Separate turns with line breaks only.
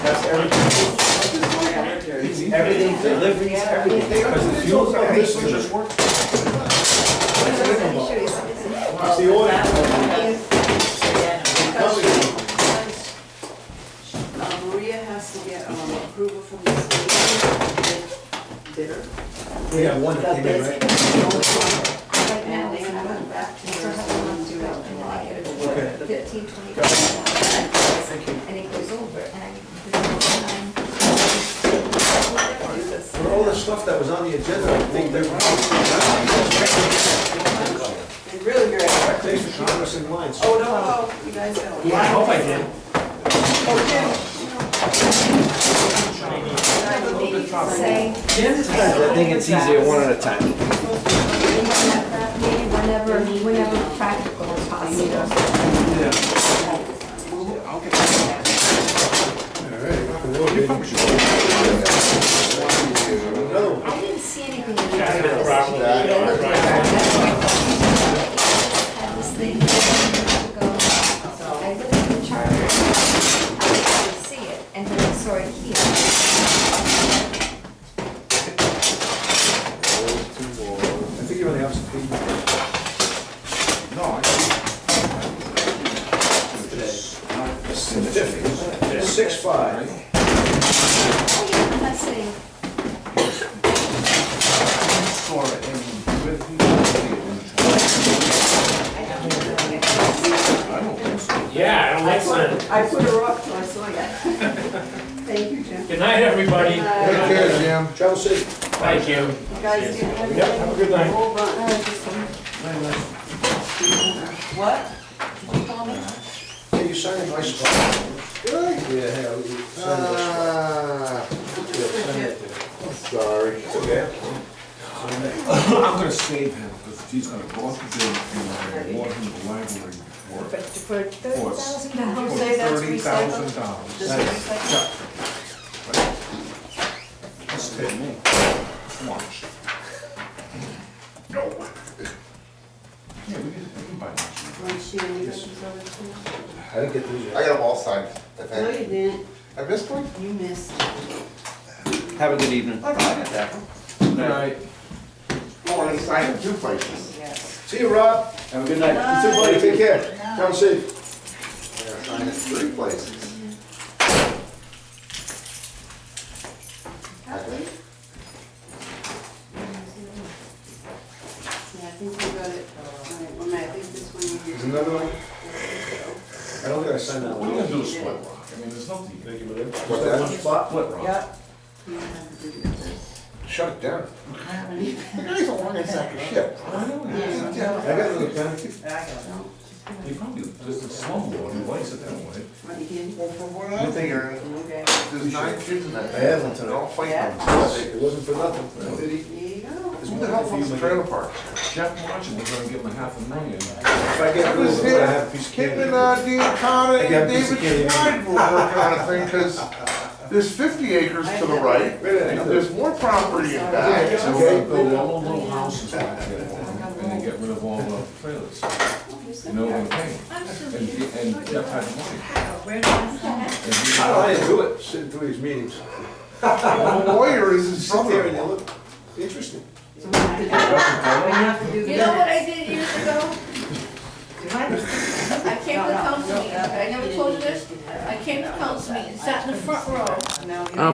that's everything, everything, deliveries, everything, because the fuel's on this one just worked. It's the order.
Uh, Maria has to get um, approval from the state bidder.
We have one that came in, right?
And they have gone back to her, so we'll do it in July.
Okay.
Fifteen, twenty.
Got it.
And it goes over and I.
For all the stuff that was on the agenda, I think they're
And really, very are
Thanks for keeping us in line.
Oh, no, oh, you guys know.
I hope I did.
Say.
I think it's easier one at a time.
Whenever, whenever practical or possible. I didn't see anything. in there. Don't look at that. That's why I Had this thing years ago. I looked at the charter. I didn't see it, and then I saw it Oh, here.
I think you only have some people. Certificate, six five.
Oh, yeah, I'm not saying. I don't know.
Yeah, I don't like sun.
I put her up till I saw you. Thank you, Jim.
Good night, everybody.
Take
Jim. Travel safe.
Thank you.
You guys do have.
Yep, have a good night.
Whole bunch.
Oh, just one.
What? Did you call me?
Can you sign a nice spot? Really? Yeah, yeah. we- sign a nice spot.
Ah, sorry.
Okay.
I'm gonna save him, because he's gonna go up to Dave and award him the library
For
work
thirty thousand
for
dollars.
thirty thousand dollars.
Just a second.
That's to me. Watch. No. Yeah, we can, we can buy lunch.
Want to share any of those other two?
I didn't get these
I
yet.
got them all signed, I
No, you
think.
didn't.
I missed one?
You missed.
Have a good evening.
Good night.
Oh, I signed in two places.
Yes.
See you, Rob.
Have a good night.
You too, buddy. Take care. Travel safe.
Yeah, I signed in three places.
Kathleen? Yeah, I think we got it. All right, Well, Matt, I think this one you.
There's another one? I don't think I signed that
We're
one.
gonna do a split rock, I mean, there's nothing.
Thank you, brother.
What's that?
One spot?
Split rock.
Yep. You don't have to do this.
Shut it down.
I have any.
You guys don't want to sack of shit.
Yeah.
I got another pen.
I got it.
He probably, there's a slumlord who likes it that way.
Want to get
Well, from what I'm hearing,
Okay.
there's nine kids in that.
I have one tonight.
They all fight
Yeah.
them.
It wasn't for nothing.
Did he,
There you go.
who the hell wants a trailer park?
Jeff Marchand was gonna give him a half a million.
If I get a little bit, I have a piece of
Him
candy.
and uh, Dan Connor
I got a
and
piece of
David Schneid were working on a thing, because there's fifty acres to the right,
Wait a
and
minute.
there's more property in back.
So they build all the little houses back there, and they get rid of all the trailers. No one came. And, and Jeff had money. And he-
I don't know how to do it, sitting through these meetings.
The lawyer is his
Sit there and you
brother.
look, interesting.
So we have to do- we have to do
You know what
minutes.
I did years ago? I came to the council meeting, I never told you this. I came to council meeting, sat in the front row,
Now we-